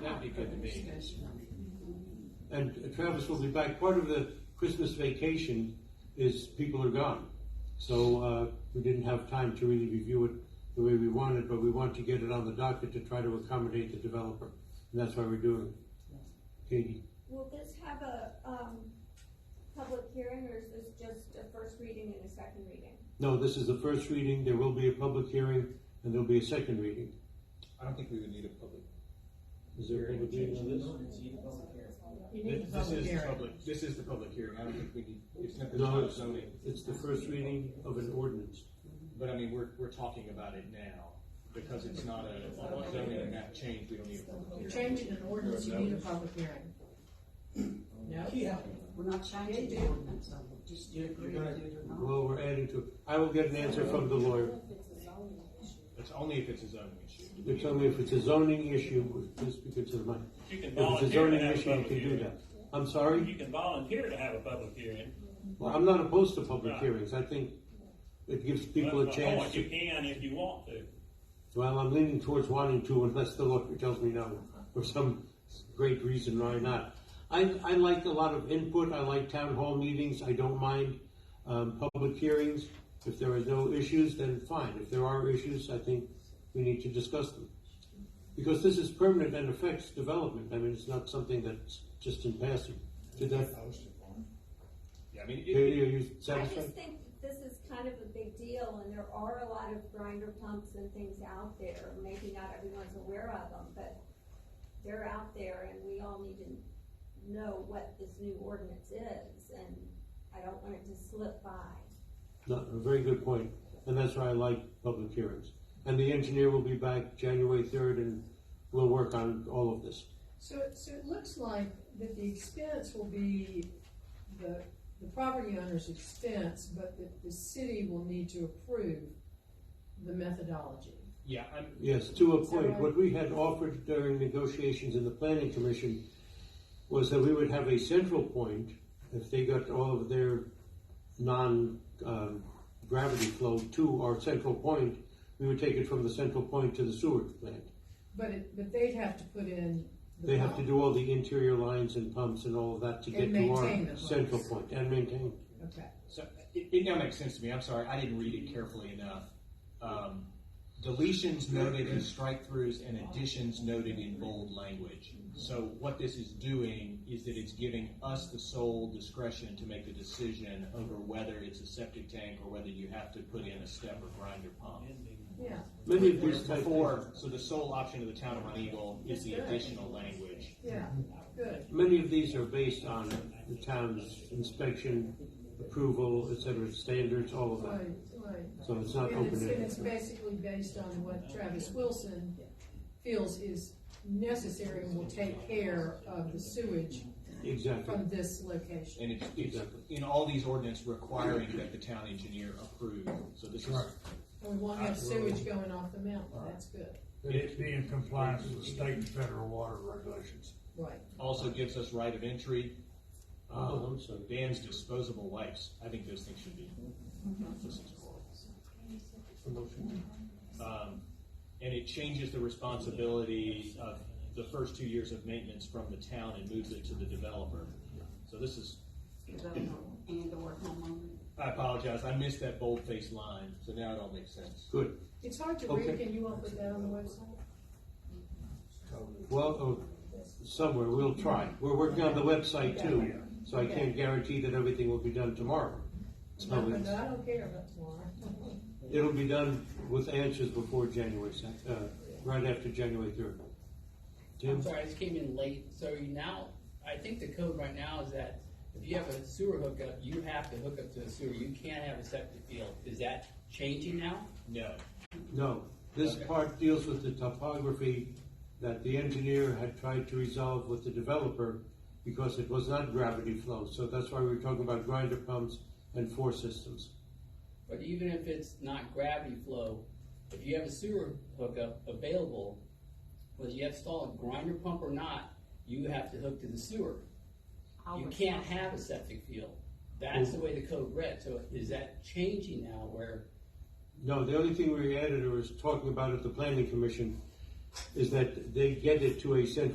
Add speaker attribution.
Speaker 1: That'd be good to me.
Speaker 2: And Travis will be back. Part of the Christmas vacation is people are gone. So uh, we didn't have time to really review it the way we wanted, but we want to get it on the docket to try to accommodate the developer. And that's why we're doing it. Katie?
Speaker 3: Will this have a, um, public hearing, or is this just a first reading and a second reading?
Speaker 2: No, this is the first reading. There will be a public hearing and there'll be a second reading.
Speaker 1: I don't think we would need a public.
Speaker 2: Is there a public reading on this?
Speaker 4: You need a
Speaker 1: This
Speaker 4: public
Speaker 1: is the
Speaker 4: hearing.
Speaker 1: public, this is the public hearing, I don't think we need, it's not the
Speaker 2: No,
Speaker 1: top
Speaker 2: it's-
Speaker 1: zoning,
Speaker 2: It's the first reading of an ordinance.
Speaker 1: but I mean, we're, we're talking about it now, because it's not a zoning map change, we don't need a
Speaker 4: You're
Speaker 1: public hearing.
Speaker 4: changing an ordinance, you need a public hearing. No?
Speaker 5: Yeah, we're not changing the ordinance, so we'll just do it, you're gonna do it or not.
Speaker 2: Well, we're adding to, it. I will get an answer from the lawyer.
Speaker 1: It's only if it's a zoning issue.
Speaker 2: You tell me if it's a zoning issue, please speak into the mic.
Speaker 6: You can
Speaker 2: If it's a
Speaker 6: volunteer to
Speaker 2: zoning
Speaker 6: have a
Speaker 2: issue, you
Speaker 6: public
Speaker 2: can do
Speaker 6: hearing.
Speaker 2: that. I'm
Speaker 6: You
Speaker 2: sorry?
Speaker 6: can volunteer to have a public hearing.
Speaker 2: Well, I'm not opposed to public
Speaker 6: Right.
Speaker 2: hearings. I think it gives people
Speaker 6: But
Speaker 2: a
Speaker 6: my
Speaker 2: chance
Speaker 6: point, oh, You
Speaker 2: to,
Speaker 6: can if you want to.
Speaker 2: well, I'm leaning towards wanting to unless the lawyer tells me no, for some great reason why not. I, I like a lot of input. I like town hall meetings. I don't mind, um, public hearings. If there are no issues, then fine. If there are issues, I think we need to discuss them. Because this is permanent and affects development. I mean, it's not something that's just in passing. Did that,
Speaker 1: Yeah, I mean, it-
Speaker 2: Katie, are you
Speaker 3: I
Speaker 2: satisfied?
Speaker 3: just think that this is kind of a big deal, and there are a lot of grinder pumps and things out there, maybe not everyone's aware of them, but they're out there, and we all need to know what this new ordinance is, and I don't want it to slip by.
Speaker 2: No, a very good point, and that's why I like public hearings. And the engineer will be back January third, and we'll work on all of this.
Speaker 4: So, so it looks like that the expense will be the, the property owner's expense, but that the city will need to approve the methodology.
Speaker 1: yeah, I'm,
Speaker 2: Yes, to a
Speaker 4: Is that
Speaker 2: point,
Speaker 4: right?
Speaker 2: what we had offered during negotiations in the planning commission was that we would have a central point, if they got all of their non, um, gravity flow to our central point, we would take it from the central point to the sewer plant.
Speaker 4: But it, but they'd have to put in. the
Speaker 2: They have to
Speaker 4: pump.
Speaker 2: do all the interior lines and pumps and all of that to get
Speaker 4: And
Speaker 2: to
Speaker 4: maintain
Speaker 2: our
Speaker 4: the
Speaker 2: central
Speaker 4: pumps.
Speaker 2: point and maintain.
Speaker 4: Okay.
Speaker 1: So it, it now makes sense to me. I'm sorry, I didn't read it carefully enough. Um, deletions noted in strike throughs and additions noted in bold language. So what this is doing is that it's giving us the sole discretion to make the decision over whether it's a septic tank or whether you have to put in a step or grinder pump.
Speaker 4: Yeah.
Speaker 2: Many of these type
Speaker 1: Before, so the sole option of the town of Run Eagle is the additional language.
Speaker 4: Yeah. Good.
Speaker 2: Many of these are based on the town's inspection, approval, et cetera, standards, all of
Speaker 4: Right.
Speaker 2: that.
Speaker 4: Right.
Speaker 2: So it's not
Speaker 4: And it's, and
Speaker 2: open
Speaker 4: it's
Speaker 2: ended.
Speaker 4: basically based on what Travis Wilson feels is necessary and will take care of the sewage
Speaker 2: Exactly.
Speaker 4: from this location.
Speaker 1: And it's, it's in all these ordinance requiring that the town engineer approve. So this is,
Speaker 4: And we won't have sewage going off the mountain, that's good,
Speaker 7: It's be in compliance with state and federal water regulations.
Speaker 4: right.
Speaker 1: also gives us right of entry.
Speaker 2: Oh,
Speaker 1: Um,
Speaker 2: I'm sorry.
Speaker 1: Dan's disposable wipes, I think those things should be. those things are horrible. Um, and it changes the responsibility of the first two years of maintenance from the town and moves it to the developer. So this is,
Speaker 5: And or homeowner.
Speaker 1: I apologize, I missed that bold-faced line, so now it all makes sense.
Speaker 2: Good.
Speaker 4: It's hard to read,
Speaker 2: Okay.
Speaker 4: can you all put that on the website?
Speaker 2: Well, oh, somewhere, we'll try. We're working on the website too, so I
Speaker 4: Okay.
Speaker 2: can't guarantee that everything will be done tomorrow. So
Speaker 4: No,
Speaker 2: it's-
Speaker 4: but I don't care about tomorrow.
Speaker 2: it'll be done with answers before January, sec- uh, right after January third.
Speaker 8: I'm
Speaker 2: Jim,
Speaker 8: sorry, I just came in late, so you now, I think the code right now is that if you have a sewer hookup, you have to hook up to a sewer, you can't have a septic field, is that changing now?
Speaker 1: No,
Speaker 2: no, this
Speaker 8: Okay.
Speaker 2: part deals with the topography that the engineer had tried to resolve with the developer because it was not gravity flow, so that's why we we're talking about grinder pumps and four systems.
Speaker 8: But even if it's not gravity flow, if you have a sewer hookup available, whether you install a grinder pump or not, you have to hook to the sewer. You can't have a septic field, that's the way the code read, so is that changing now where
Speaker 2: No, the only thing we added or was talking about at the planning commission is that they get it to a central